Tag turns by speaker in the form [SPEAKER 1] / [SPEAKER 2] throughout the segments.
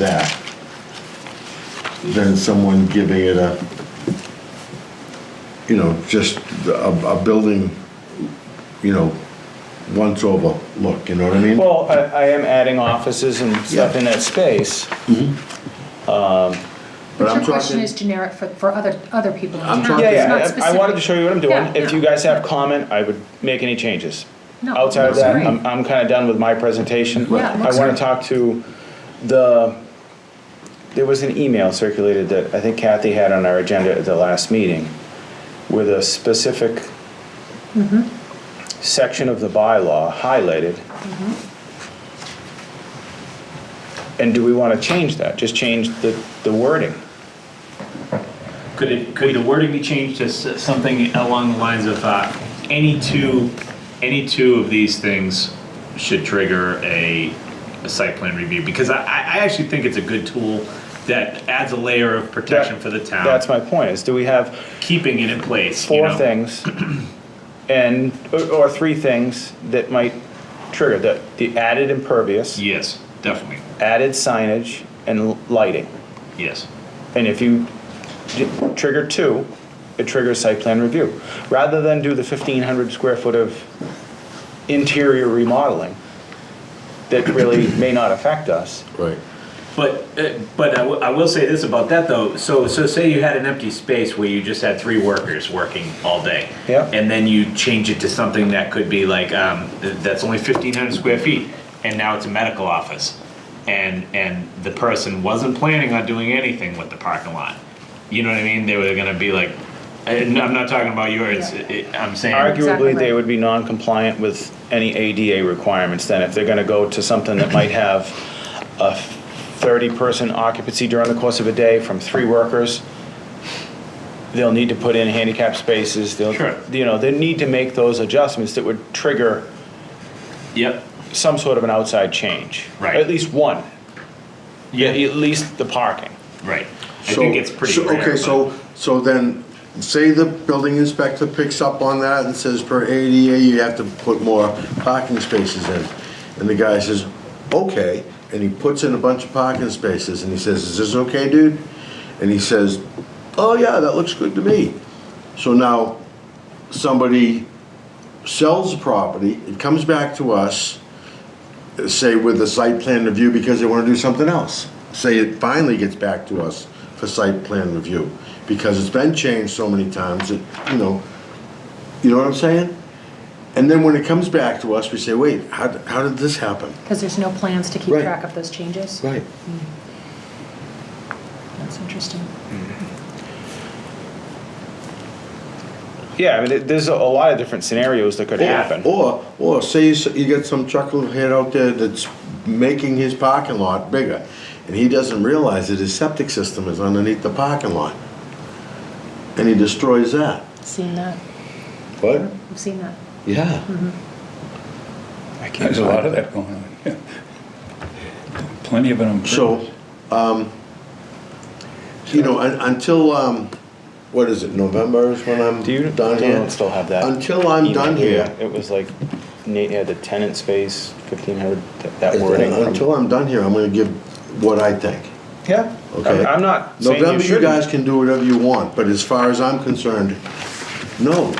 [SPEAKER 1] that than someone giving it a, you know, just a, a building, you know, once over look, you know what I mean?
[SPEAKER 2] Well, I, I am adding offices and stuff in that space.
[SPEAKER 1] But
[SPEAKER 3] But
[SPEAKER 1] I'm
[SPEAKER 3] your question
[SPEAKER 1] talking-
[SPEAKER 3] is generic for, for other, other people in
[SPEAKER 1] I'm
[SPEAKER 3] town.
[SPEAKER 1] talking-
[SPEAKER 2] Yeah,
[SPEAKER 3] It's not
[SPEAKER 2] yeah, I- I
[SPEAKER 3] specific.
[SPEAKER 2] wanted to show you what I'm
[SPEAKER 3] Yeah,
[SPEAKER 2] doing. If you
[SPEAKER 3] yeah.
[SPEAKER 2] guys have comment, I would make any changes.
[SPEAKER 3] No,
[SPEAKER 2] Outside of
[SPEAKER 3] Oh, that's
[SPEAKER 2] that,
[SPEAKER 3] great.
[SPEAKER 2] I'm, I'm kinda done with my presentation.
[SPEAKER 3] Right. Yeah, it
[SPEAKER 2] I
[SPEAKER 3] looks
[SPEAKER 2] wanna
[SPEAKER 3] great.
[SPEAKER 2] talk to the, there was an email circulated that I think Kathy had on our agenda at the last meeting with a specific
[SPEAKER 3] Mm-hmm.
[SPEAKER 2] section of the bylaw highlighted.
[SPEAKER 3] Mm-hmm.
[SPEAKER 2] And do we wanna change that? Just change the, the wording?
[SPEAKER 4] Could it, could the wording be changed to s- something along the lines of, uh, any two, any two of these things should trigger a, a site plan review? Because I, I I actually think it's a good tool that adds a layer of protection for the town.
[SPEAKER 2] That's my point, is do we have
[SPEAKER 4] Keeping it in place, you
[SPEAKER 2] four
[SPEAKER 4] know?
[SPEAKER 2] things and, or- or three things that might trigger the, the added impervious,
[SPEAKER 4] Yes, definitely,
[SPEAKER 2] added signage and l- lighting.
[SPEAKER 4] yes.
[SPEAKER 2] And if you d- trigger two, it triggers site plan review. Rather than do the fifteen hundred square foot of interior remodeling that really may not affect us.
[SPEAKER 1] Right.
[SPEAKER 4] But, uh, but I wi- I will say this about that though, so, so say you had an empty space where you just had three workers working all day.
[SPEAKER 2] Yeah.
[SPEAKER 4] And then you change it to something that could be like, um, th- that's only fifteen hundred square feet, and now it's a medical office. And, and the person wasn't planning on doing anything with the parking lot. You know what I mean? They were gonna be like, and I'm not talking about yours, I- I- I'm saying,
[SPEAKER 2] Arguably,
[SPEAKER 3] Exactly.
[SPEAKER 2] they would be non-compliant with any ADA requirements then, if they're gonna go to something that might have a thirty-person occupancy during the course of a day from three workers. They'll need to put in handicap spaces, they'll,
[SPEAKER 4] Sure.
[SPEAKER 2] you know, they need to make those adjustments that would trigger
[SPEAKER 4] yep,
[SPEAKER 2] some sort of an outside change.
[SPEAKER 4] Right.
[SPEAKER 2] At least one.
[SPEAKER 4] Yeah.
[SPEAKER 2] At least the parking.
[SPEAKER 4] right. I
[SPEAKER 1] So-
[SPEAKER 4] think it's pretty
[SPEAKER 1] so-
[SPEAKER 4] rare.
[SPEAKER 1] Okay,
[SPEAKER 4] but-
[SPEAKER 1] so, so then, say the building inspector picks up on that and says per ADA, you have to put more parking spaces in. And the guy says, okay, and he puts in a bunch of parking spaces, and he says, is this okay, dude? And he says, oh yeah, that looks good to me. So now, somebody sells the property, it comes back to us, say with the site plan review because they want to do something else. Say it finally gets back to us for site plan review, because it's been changed so many times that, you know, you know what I'm saying? And then when it comes back to us, we say, wait, how, how did this happen?
[SPEAKER 3] Because there's no plans to keep
[SPEAKER 1] Right.
[SPEAKER 3] track of those changes.
[SPEAKER 1] Right.
[SPEAKER 3] That's interesting.
[SPEAKER 2] Yeah, I mean, there- there's a a lot of different scenarios that could happen.
[SPEAKER 1] Or, or say you, s- you get some chucklehead out there that's making his parking lot bigger, and he doesn't realize that his septic system is underneath the parking lot. And he destroys that.
[SPEAKER 3] Seen that.
[SPEAKER 1] What?
[SPEAKER 3] I've seen that.
[SPEAKER 1] Yeah.
[SPEAKER 5] There's a lot of that going on. yeah. Plenty of it on.
[SPEAKER 1] So, um, you know, un- until, um, what is it, November is when I'm
[SPEAKER 2] Do you,
[SPEAKER 1] done
[SPEAKER 2] do
[SPEAKER 1] here?
[SPEAKER 2] still have that?
[SPEAKER 1] Until I'm
[SPEAKER 2] email
[SPEAKER 1] done here,
[SPEAKER 2] It was like Nate had the tenant space, fifteen hundred, that wording. from-
[SPEAKER 1] until I'm done here, I'm gonna give what I think,
[SPEAKER 2] Yeah,
[SPEAKER 1] okay?
[SPEAKER 2] I'm- I'm not saying you
[SPEAKER 1] November, you guys can
[SPEAKER 2] shouldn't.
[SPEAKER 1] do whatever you want, but as far as I'm concerned, no.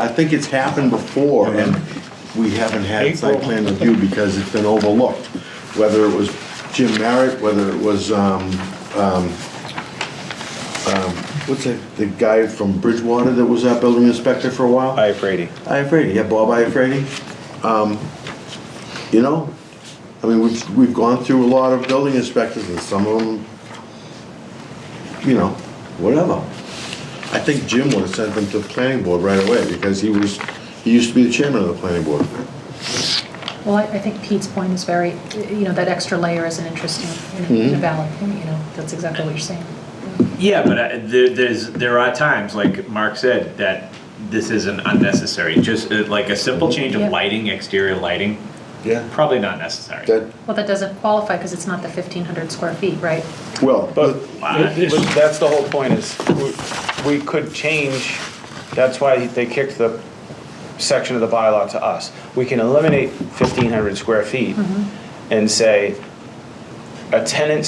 [SPEAKER 1] I think it's happened before and we haven't had site
[SPEAKER 2] April.
[SPEAKER 1] plan review because it's been overlooked. Whether it was Jim Merritt, whether it was, um, What's the, the guy from Bridgewater that was that building inspector for a while?
[SPEAKER 2] I, Brady,
[SPEAKER 1] Iafredi, yeah, Bob Iafredi. Um, you know, I mean, we've, we've gone through a lot of building inspectors and some of them, you know, whatever. I think Jim would have sent them to the planning board right away because he was, he used to be the chairman of the planning board.
[SPEAKER 3] Well, I, I think Pete's point is very, you know, that extra layer is an interesting, and a valid point, you know, that's exactly what you're saying.
[SPEAKER 4] Yeah, but I, there, there's there are times, like Mark said, that this isn't unnecessary. Just uh, like a simple change
[SPEAKER 3] Yeah.
[SPEAKER 4] of lighting, exterior lighting,
[SPEAKER 1] Yeah.
[SPEAKER 4] probably not necessary.
[SPEAKER 1] That,
[SPEAKER 3] Well, that doesn't qualify because it's not the 1,500 square feet, right?
[SPEAKER 1] well,
[SPEAKER 2] but
[SPEAKER 4] Wow.
[SPEAKER 2] but that's the whole point is, we- we could change, that's why they kicked the section of the bylaw to us. We can eliminate fifteen hundred square feet and say, a tenant